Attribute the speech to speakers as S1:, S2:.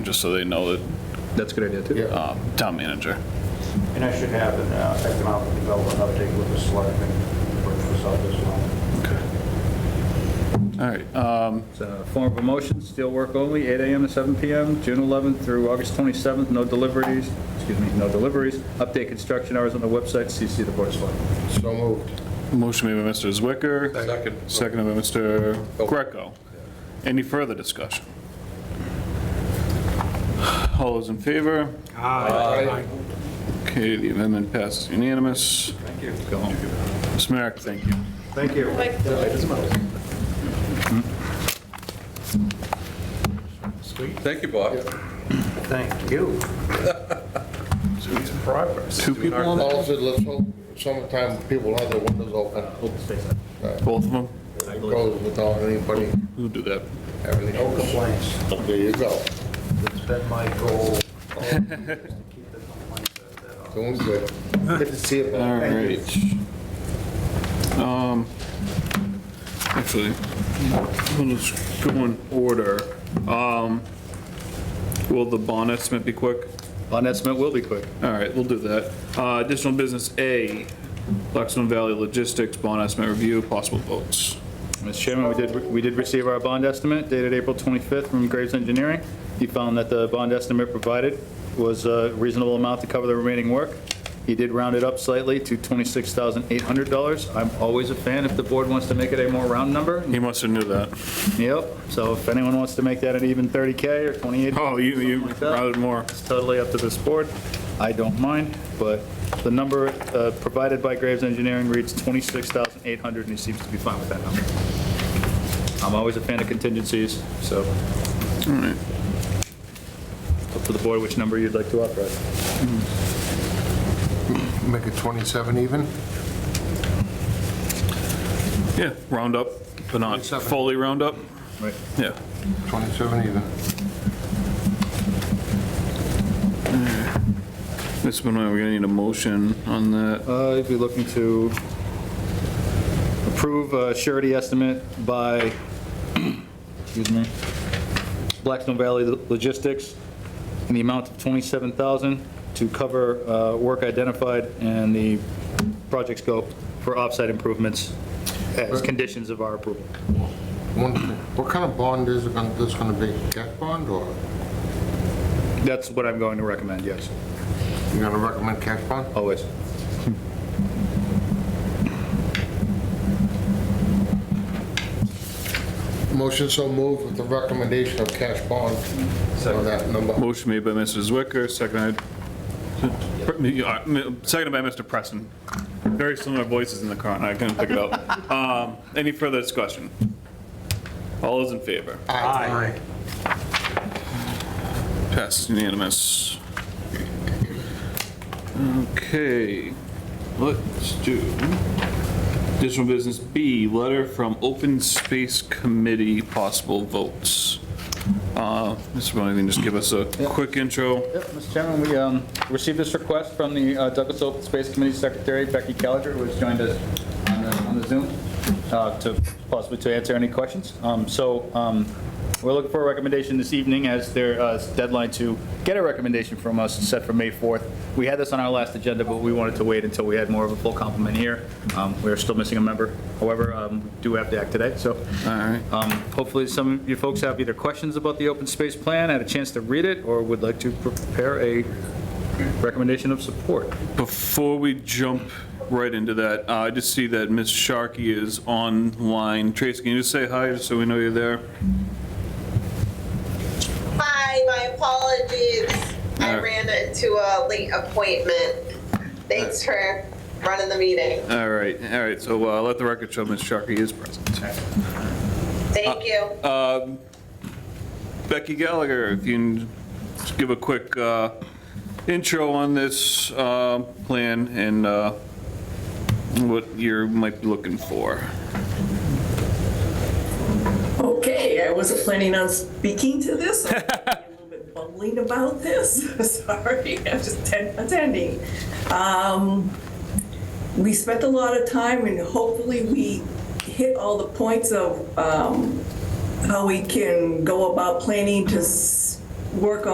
S1: just so they know that
S2: That's a good idea, too.
S1: um, town manager.
S3: And I should have an uh, economic development update with the selectmen for for South as well.
S1: All right, um,
S2: It's a Form of a motion, steel work only, 8 AM to 7 PM, June 11th through August 27th, no deliveries, excuse me, no deliveries. Update construction hours on the website, CC the board of selectmen.
S4: So moved.
S1: motion made by Mr. Zwicker.
S4: Second.
S1: Seconded by Mr. Greco. Any further discussion? All those in favor?
S4: Aye.
S1: Okay, the amendment passes unanimous.
S2: Thank you. Go home.
S1: Ms. Merrick, thank you.
S3: Thank you.
S5: Thank you, Bob.
S3: Thank you.
S1: Two people on that?
S4: Paul said, let's hope summertime people have their windows open,
S1: Both of them?
S4: closed without anybody,
S1: Who do that?
S4: everything
S3: No
S4: open.
S3: complaints.
S4: There you go.
S3: It's been my goal. all these years to keep the complaints out of that office.
S4: Doing good. Good to see you.
S1: All
S4: Bob. Thank you.
S1: right. Um, Actually, we'll just go in order. Um, Will the bond estimate be quick?
S2: On that, Smith will be quick.
S1: All right, we'll do that. Uh, Additional business A, Blackstone Valley Logistics Bond Estimate Review, possible votes.
S2: Mr. Chairman, we did, we did receive our bond estimate dated April 25th from Graves Engineering. He found that the bond estimate provided was a reasonable amount to cover the remaining work. He did round it up slightly to $26,800. I'm always a fan if the board wants to make it a more round number.
S1: He must have knew that.
S2: Yep, so if anyone wants to make that an even 30K or 28,
S1: Oh, you, you
S2: Something like that.
S1: routed more.
S2: it's totally up to this board. I don't mind, but the number uh, provided by Graves Engineering reads 26,800, and he seems to be fine with that number. I'm always a fan of contingencies, so. Up to the board which number you'd like to authorize.
S4: Make it 27 even?
S1: Yeah, round up, but not
S4: Twenty-seven.
S1: fully round up.
S2: Right.
S1: Yeah.
S4: 27 even.
S1: Ms. Benoit, we're gonna need a motion on that.
S2: Uh, I'd be looking to approve a surety estimate by, excuse me, Blackstone Valley Logistics in the amount of 27000 to cover uh, work identified and the project scope for offsite improvements as conditions of our approval.
S4: One thing. What kind of bond is it gonna, this gonna be? Cat bond or,
S2: That's what I'm going to recommend, yes,
S4: you gonna recommend cash bond?
S2: always.
S4: Motion so moved with the recommendation of cash bond on that number.
S1: Motion made by Mr. Zwicker, seconded, seconded by Mr. Preston. Very similar voices in the car, and I couldn't pick it up. Um, Any further discussion? All those in favor?
S4: Aye.
S1: Passed unanimous. Okay, let's do additional business B, letter from Open Space Committee, possible votes. Uh, Mr. Bonnie, can you just give us a quick intro?
S2: Yep, Mr. Chairman, we um, received this request from the uh, Douglas Open Space Committee Secretary Becky Caliger, who has joined us on the- on the Zoom, uh, to possibly to answer any questions. Um, So um, we're looking for a recommendation this evening as their uh, deadline to get a recommendation from us is set for May 4th. We had this on our last agenda, but we wanted to wait until we had more of a full complement here. Um, We are still missing a member, however, um, we do have to act today, so
S1: All right.
S2: um, Hopefully, some of you folks have either questions about the open space plan, had a chance to read it, or would like to prepare a recommendation of support.
S1: Before we jump right into that, uh, I just see that Ms. Sharkey is online. Trace, can you just say hi, just so we know you're there?
S6: Hi, my apologies. I
S1: Alright.
S6: ran into a late appointment. Thanks for running the meeting.
S1: All right, all right, so uh, let the record show Ms. Sharkey is present.
S6: Thank you.
S1: Um, Becky Gallagher, if you can just give a quick uh, intro on this uh, plan and uh, what you might be looking for.
S7: Okay, I wasn't planning on speaking to this. I'm a little bit bumbling about this. Sorry, I'm just atten- attending. Um, We spent a lot of time and hopefully we hit all the points of um, how we can go about planning to s- work on.